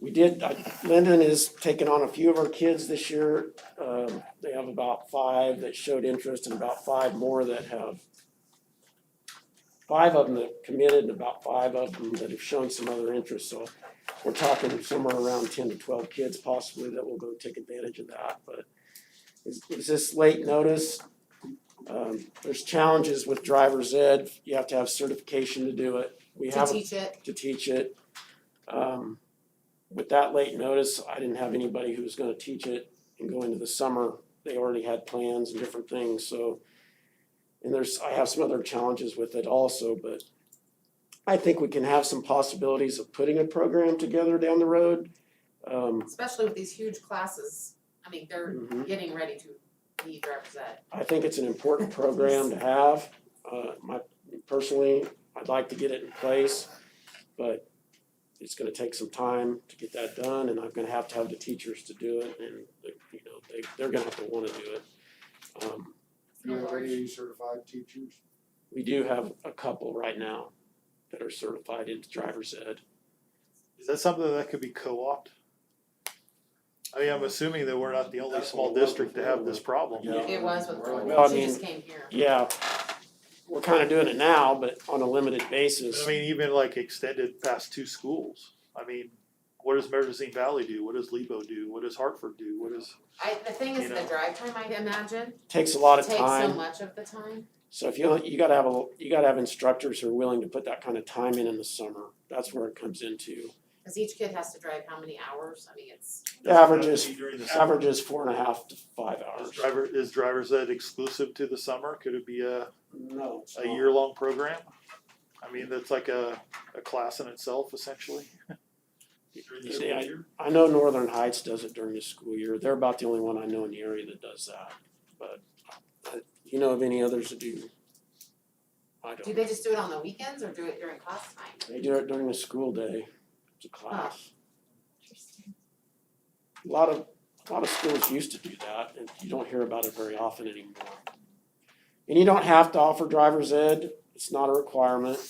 We did, I- Lyndon is taking on a few of our kids this year. Um, They have about five that showed interest and about five more that have. Five of them that committed and about five of them that have shown some other interest. So we're talking somewhere around ten to twelve kids possibly that will go take advantage of that. But is, is this late notice? Um, There's challenges with driver's ed. You have to have certification to do it. We to have a teach it. to teach it. Um, with that late notice, I didn't have anybody who was gonna teach it and go into the summer. They already had plans and different things, so. And there's, I have some other challenges with it also, but I think we can have some possibilities of putting a program together down the road. Um, Especially with these huge classes, I mean, they're mhm. getting ready to be driver's ed. I think it's an important program to have. Uh, my, personally, I'd like to get it in place, but it's gonna take some time to get that done, and I'm gonna have to have the teachers to do it, and, like, you know, they, they're gonna have to wanna do it. Um, Do you have any certified teachers? we do have a couple right now that are certified in driver's ed. Is that something that could be co-opted? I mean, I'm assuming that we're not the only That's small what we're district to looking for. have this problem. Yeah. It was with Well, I Thornton, she mean- just came here. Yeah, we're kinda doing it now, but on a limited basis. I mean, even like extended past two schools. I mean, what does Merzine Valley do? What does Lebo do? What does Hartford do? What is? I, the thing is, You the know. drive time, I imagine, Takes a lot of takes time. so much of the time. So if you, you gotta have a, you gotta have instructors who are willing to put that kind of time in in the summer, that's where it comes into. Cause each kid has to drive how many hours? I mean, it's, The average is, During the the summer, average is four and a half to five is hours. driver, is driver's ed exclusive to the summer? Could it be a, No. a year-long program? I mean, that's like a, a class in itself essentially. During the school Yeah, I- year? I know Northern Heights does it during the school year, they're about the only one I know in the area that does that, but uh, you know of any others that do? I do don't, they just do it on the weekends or do it during class time? they do it during the school day, it's a class. A lot of, a lot of schools used to do that, and you don't hear about it very often anymore. And you don't have to offer driver's ed, it's not a requirement.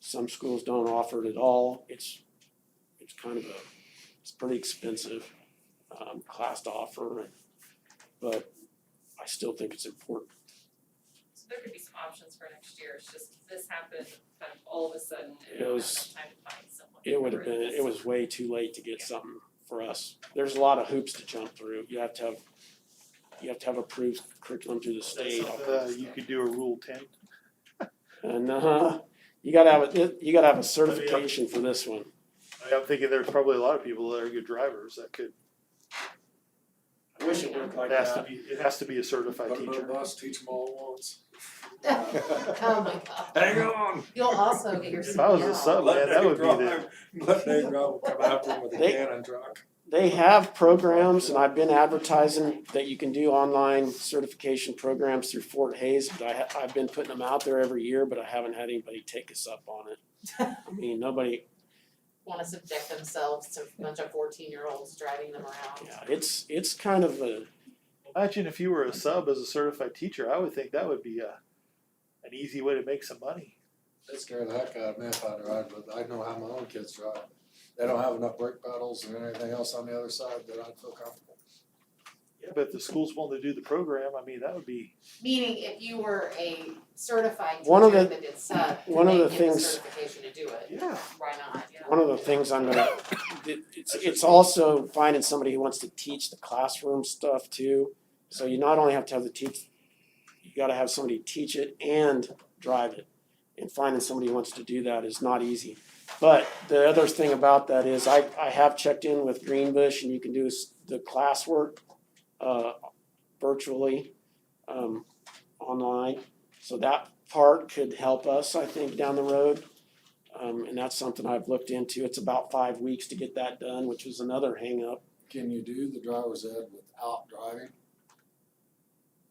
Some schools don't offer it at all, it's, it's kind of a, it's pretty expensive, um, class to offer, and- but I still think it's important. So there could be some options for next year, it's just this happened kind of all of a sudden and It we don't have was- enough time to find someone. It would have been, it was way too late to get something for us. There's a lot of hoops to jump through, you have to have, you have to have approved curriculum through the state. Uh, you could do a rule ten And uh, you gotta have a, you gotta have a certification for this one. I mean, I'm thinking there's probably a lot of people that are good drivers that could, I wish it worked like it has to that. be, it has to be a certified Put 'em on a teacher. bus, teach them all at once. Oh my god. Hang on. You'll also get your If I was a CDL. Oh, sub, man, that would be the, Let Dave Grohl come after him with a They- cannon truck. They have programs and I've been advertising that you can do online certification programs through Fort Hayes, but I ha- I've been putting them out there every year, but I haven't had anybody take us up on it. I mean, nobody, Wanna subject themselves to a bunch of fourteen-year-olds driving them around. yeah, it's, it's kind of a, imagine if you were a sub as a certified teacher, I would think that would be a, an easy way to make some money. That scared the heck out of me if I drive, but I know how my own kids drive. They don't have enough brake pedals and anything else on the other side that I'd feel comfortable. Yeah, but if the school's willing to do the program, I mean, that would be, Meaning if you were a certified One teacher of that did sub, one of they the get the things- certification to do it, yeah. why not, you know? one of the things I'm gonna, it's, it's also finding somebody who wants to teach the classroom stuff too. So you not only have to have the teach, you gotta have somebody teach it and drive it. And finding somebody who wants to do that is not easy. But the other thing about that is I, I have checked in with Greenbush and you can do s- the classwork, uh, virtually, um, online. So that part could help us, I think, down the road. Um, and that's something I've looked into. It's about five weeks to get that done, which was another hangup. Can you do the driver's ed without driving?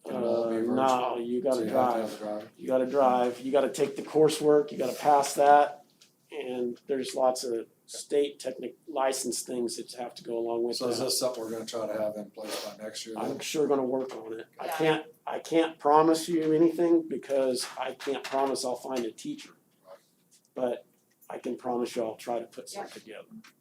Can it all Uh, be virtual? no, you So gotta you have to have drive. a driver. You gotta drive. You gotta take the coursework. You gotta pass that. And there's lots of state technic license things that have to go along with So is that. this something we're gonna try to have in place by next year then? I'm sure gonna work on it. I Yeah. can't, I can't promise you anything because I can't promise I'll find a teacher. But I can promise you I'll try to put Yeah. something together.